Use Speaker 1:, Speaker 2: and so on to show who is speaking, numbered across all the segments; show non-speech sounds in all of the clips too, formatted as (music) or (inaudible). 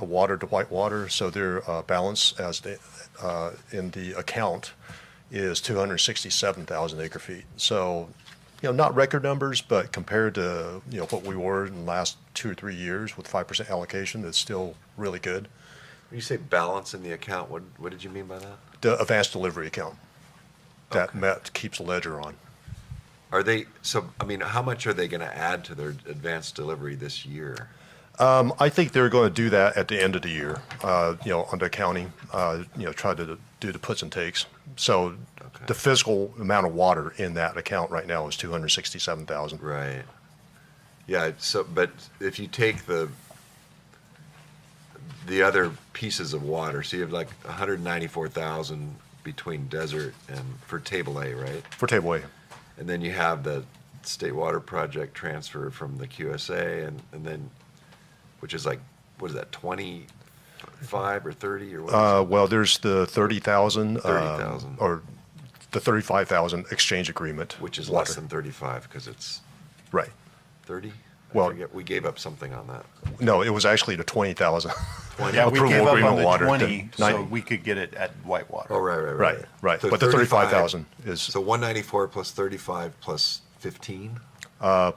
Speaker 1: water to white water, so their uh, balance as the, uh, in the account is 267,000 acre feet. So, you know, not record numbers, but compared to, you know, what we were in the last two or three years with 5% allocation, that's still really good.
Speaker 2: When you say balance in the account, what, what did you mean by that?
Speaker 1: The advanced delivery account that Met keeps a ledger on.
Speaker 2: Are they, so, I mean, how much are they going to add to their advanced delivery this year?
Speaker 1: Um, I think they're going to do that at the end of the year, uh, you know, under accounting, uh, you know, try to do the puts and takes. So
Speaker 2: Okay.
Speaker 1: the physical amount of water in that account right now is 267,000.
Speaker 2: Right. Yeah, it's- so, but if you take the, the other pieces of water, so you have like hundred ninety-four thousand between desert and, for table A, right?
Speaker 1: For table A.
Speaker 2: And then you have the state water project transfer from the QSA and, and then, which is like, what is that, twenty-five or thirty or what? is it?
Speaker 1: Uh, well, there's the 30,000. um,
Speaker 2: 30,000.
Speaker 1: Or the 35,000 exchange agreement.
Speaker 2: Which is
Speaker 1: water.
Speaker 2: less than thirty-five, because it's
Speaker 1: Right.
Speaker 2: thirty?
Speaker 1: Well-
Speaker 2: We gave up something on that.
Speaker 1: No, it was actually the 20,000.
Speaker 3: Yeah, we gave
Speaker 1: Approval
Speaker 3: up
Speaker 1: agreement
Speaker 3: on the
Speaker 1: water,
Speaker 3: twenty,
Speaker 1: the
Speaker 3: so
Speaker 1: nine-
Speaker 3: we could get it at Whitewater.
Speaker 2: Oh, right, right, right.
Speaker 1: Right, right. But the 35,000 is-
Speaker 2: So one ninety-four plus thirty-five plus fifteen,
Speaker 1: Yeah,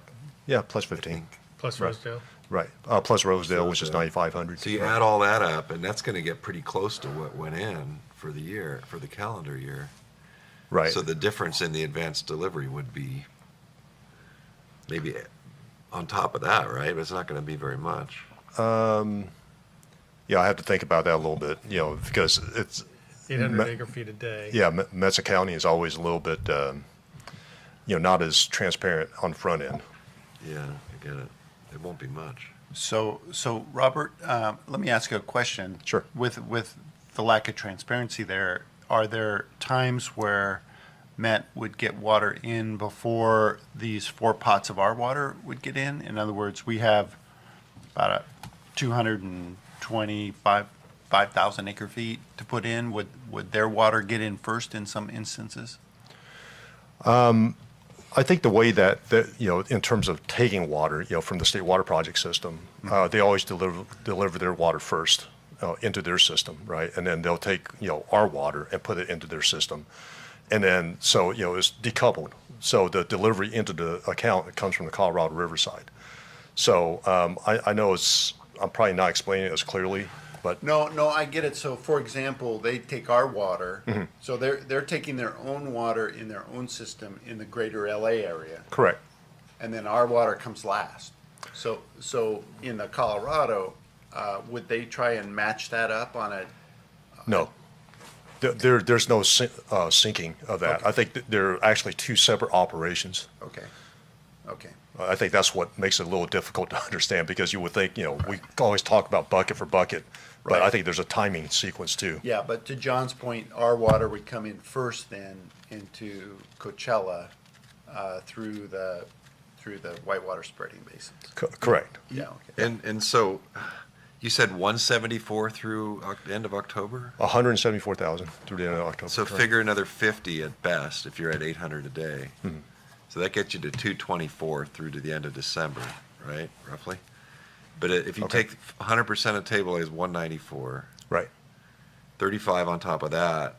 Speaker 1: plus
Speaker 2: I
Speaker 1: 15.
Speaker 2: think.
Speaker 4: Plus Rosedale.
Speaker 1: Right. Uh, plus Rosedale, which is 9,500.
Speaker 2: So you add all that up, and that's gonna get pretty close to what went in for the year, for the calendar year.
Speaker 1: Right.
Speaker 2: So the difference in the advanced delivery would be maybe on top of that, right? But it's not gonna be very much.
Speaker 1: Yeah, I have to think about that a little bit, you know, because it's,
Speaker 4: 800
Speaker 1: Ma-
Speaker 4: acre feet a day.
Speaker 1: yeah, Me- Mesa County is always a little bit, um, you know, not as transparent on the front end.
Speaker 2: Yeah, I get it. It won't be much.
Speaker 3: So, so Robert, um, let me ask you a question.
Speaker 1: Sure.
Speaker 3: With, with the lack of transparency there, are there times where Met would get water in before these four pots of our water would get in? In other words, we have about a two hundred and twenty-five, five thousand acre feet to put in. Would, would their water get in first in some instances?
Speaker 1: I think the way that, that, you know, in terms of taking water, you know, from the state water project system, uh, they always deliver, deliver their water first uh, into their system, right? And then they'll take, you know, our water and put it into their system. And then, so, you know, it's decoupled. So the delivery into the account comes from the Colorado Riverside. So um, I, I know it's, I'm probably not explaining it as clearly, but
Speaker 3: No, no, I get it. So, for example, they take our water, so they're they're taking their own water in their own system in the greater LA area,
Speaker 1: correct.
Speaker 3: and then our water comes last. So, so in the Colorado, uh, would they try and match that up on a?
Speaker 1: No. There- There, there's no syn- uh, syncing of that. I think that they're actually two separate operations.
Speaker 3: Okay, okay,
Speaker 1: I think that's what makes it a little difficult to (laughs) understand because you would think, you know, we always talk about bucket for bucket, but I
Speaker 3: Right.
Speaker 1: think there's a timing sequence too.
Speaker 3: yeah. But to John's point, our water would come in first, then into Coachella uh, through the through the whitewater spreading basins.
Speaker 1: Co- Correct.
Speaker 3: Yeah. Okay.
Speaker 2: And, and so you said one seventy-four through Oc- end of October?
Speaker 1: 174,000 through the end of October.
Speaker 2: So
Speaker 1: correct.
Speaker 2: figure another fifty at best if you're at eight hundred a day.
Speaker 1: Hmm.
Speaker 2: So that gets you to two twenty-four through to the end of December, right, roughly? But i- if you
Speaker 1: Okay.
Speaker 2: take hundred percent of table A is one ninety-four,
Speaker 1: Right.
Speaker 2: thirty-five on top of that,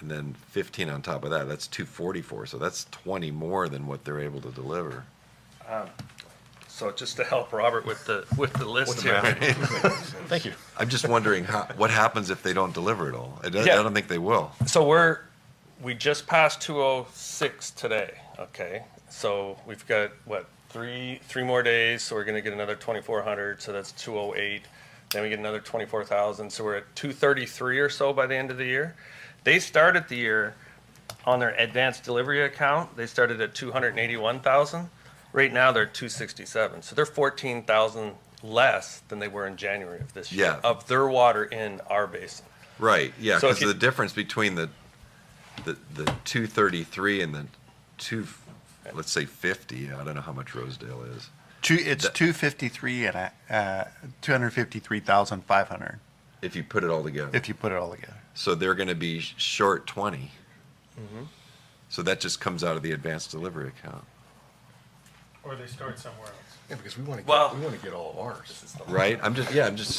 Speaker 2: and then fifteen on top of that, that's two forty-four. So that's twenty more than what they're able to deliver.
Speaker 5: So just to help Robert with the, with the list here.
Speaker 1: Thank you.
Speaker 2: I'm just wondering how, what happens if they don't deliver it all? I don't, I
Speaker 5: Yeah.
Speaker 2: don't think they will.
Speaker 5: So we're, we just passed two oh six today, okay? So we've got, what, three, three more days, so we're gonna get another twenty-four hundred, so that's two oh eight. Then we get another twenty-four thousand, so we're at two thirty-three or so by the end of the year. They started the year on their advanced delivery account, they started at two hundred and eighty-one thousand. Right now, they're two sixty-seven, so they're fourteen thousand less than they were in January of this year.
Speaker 2: Yeah.
Speaker 5: Of their water in our basin.
Speaker 2: Right, yeah,
Speaker 5: So
Speaker 2: because
Speaker 5: if you-
Speaker 2: the difference between the, the, the two thirty-three and the two, let's say fifty, I don't know how much Rosedale is.
Speaker 3: Two, it's
Speaker 2: That-
Speaker 3: two fifty-three and a, uh, two hundred fifty-three thousand five hundred,
Speaker 2: If you put it all together,
Speaker 3: if you put it all together.
Speaker 2: so they're gonna be sh- short twenty.
Speaker 5: Mm-hmm.
Speaker 2: So that just comes out of the advanced delivery account.
Speaker 4: Or they start somewhere else.
Speaker 6: Yeah, because we want to
Speaker 5: Well-
Speaker 6: get, we want to get all of ours.
Speaker 2: Right, I'm just, yeah, I'm just